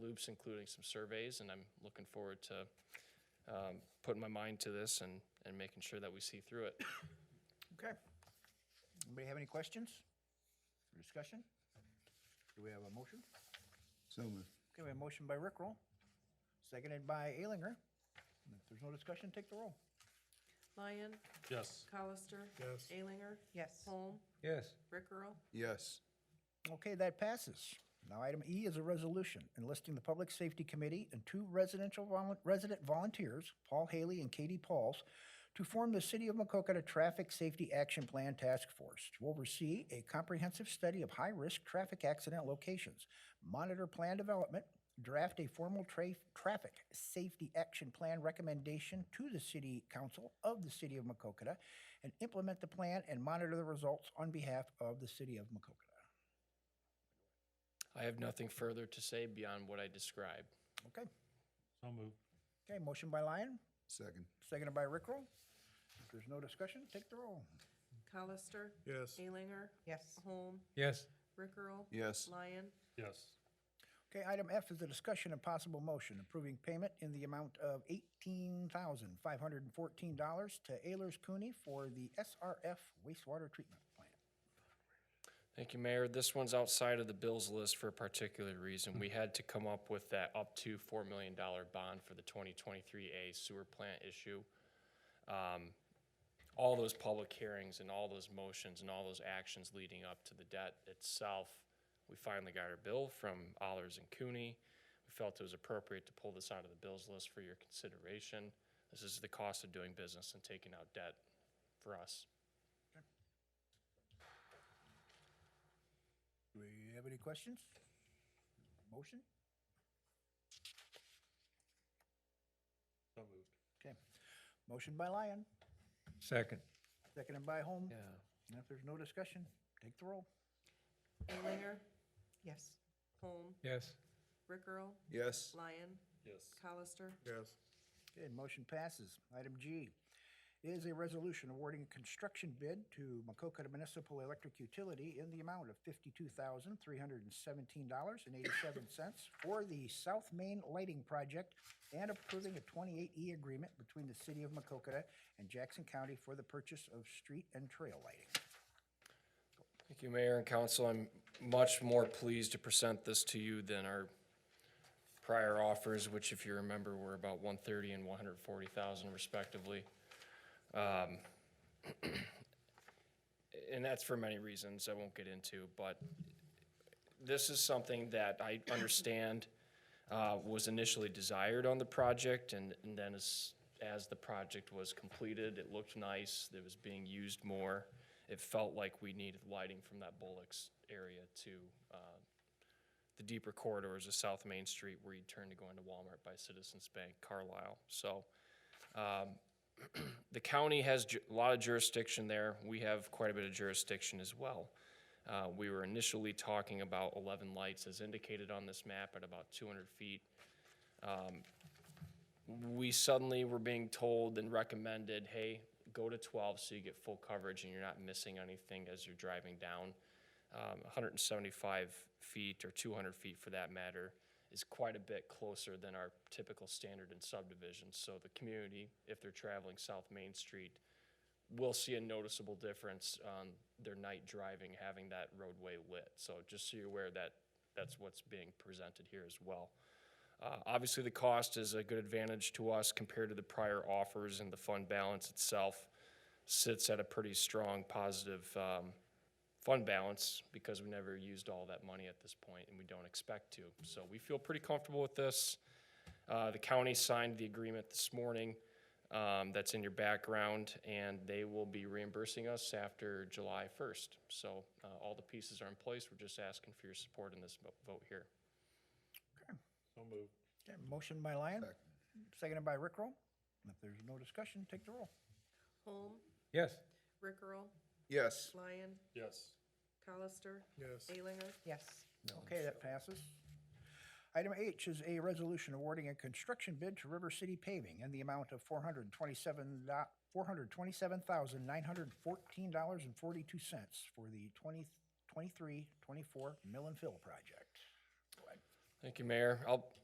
loops, including some surveys, and I'm looking forward to um, putting my mind to this and, and making sure that we see through it. Okay. Anybody have any questions or discussion? Do we have a motion? So moved. Okay, we have a motion by Rickroll, seconded by Alinger. And If there's no discussion, take the roll. Lyon, Yes. Colister. Yes. Alinger. Yes. Holm, Yes. Rickrell. Yes. Okay, that passes. Now, item E is a resolution enlisting the Public Safety Committee and two residential volun- resident volunteers, Paul Haley and Katie Pauls, to form the City of Macokota Traffic Safety Action Plan Task Force to oversee a comprehensive study of high-risk traffic accident locations, monitor plan development, draft a formal tra- traffic safety action plan recommendation to the City Council of the City of Macokota, and implement the plan and monitor the results on behalf of the City of Macokota. I have nothing further to say beyond what I described. Okay. So moved. Okay, motion by Lyon, Second. seconded by Rickroll. If there's no discussion, take the roll. Colister. Yes. Alinger. Yes. Holm, Yes. Rickrell. Yes. Lyon, Yes. Okay, item F is a discussion and possible motion approving payment in the amount of eighteen thousand five hundred and fourteen dollars to Ayers Cooney for the SRF wastewater treatment plant. Thank you, Mayor. This one's outside of the bills list for a particular reason. We had to come up with that up to $4 million bond for the 2023A sewer plant issue. Um, All those public hearings and all those motions and all those actions leading up to the debt itself, we finally got our bill from Allers and Cooney. We felt it was appropriate to pull this out of the bills list for your consideration. This is the cost of doing business and taking out debt for us. Do we have any questions? Motion? So moved. Okay. Motion by Lyon, Second. seconded by Holm. Yeah. And if there's no discussion, take the roll. Alinger. Yes. Holm, Yes. Rickrell. Yes. Lyon, Yes. Colister. Yes. Okay, motion passes. Item G is a resolution awarding a construction bid to Macokota Municipal Electric Utility in the amount of fifty-two thousand, three hundred and seventeen dollars and eighty-seven cents for the South Main Lighting Project and approving a twenty-eight E agreement between the City of Macokota and Jackson County for the purchase of street and trail lighting. Thank you, Mayor and Council. I'm much more pleased to present this to you than our prior offers, which if you remember, were about one thirty and one hundred forty thousand respectively. Um, And that's for many reasons I won't get into, but this is something that I understand uh, was initially desired on the project, and and then as, as the project was completed, it looked nice, it was being used more. It felt like we needed lighting from that Bullocks area to uh, the deeper corridors of South Main Street where you turn to go into Walmart by Citizens Bank, Carlisle. So um, the county has ju- a lot of jurisdiction there. We have quite a bit of jurisdiction as well. Uh, We were initially talking about 11 lights as indicated on this map at about 200 feet. Um, We suddenly were being told and recommended, hey, go to 12 so you get full coverage and you're not missing anything as you're driving down. Um, 175 feet or 200 feet for that matter is quite a bit closer than our typical standard in subdivisions. So the community, if they're traveling South Main Street, will see a noticeable difference on their night driving, having that roadway lit. So just so you're aware that, that's what's being presented here as well. Uh, Obviously, the cost is a good advantage to us compared to the prior offers, and the fund balance itself sits at a pretty strong positive um, fund balance because we never used all that money at this point, and we don't expect to. So we feel pretty comfortable with this. Uh, The county signed the agreement this morning um, that's in your background, and they will be reimbursing us after July 1st. So uh, all the pieces are in place. We're just asking for your support in this vo- vote here. So moved. Okay, motion by Lyon, seconded by Rickroll. And If there's no discussion, take the roll. Holm, Yes. Rickrell. Yes. Lyon, Yes. Colister. Yes. Alinger. Yes. Okay, that passes. Item H is a resolution awarding a construction bid to River City Paving in the amount of four hundred twenty-seven four hundred twenty-seven thousand nine hundred fourteen dollars and forty-two cents for the 2023-24 mill and fill project. Thank you, Mayor. I'll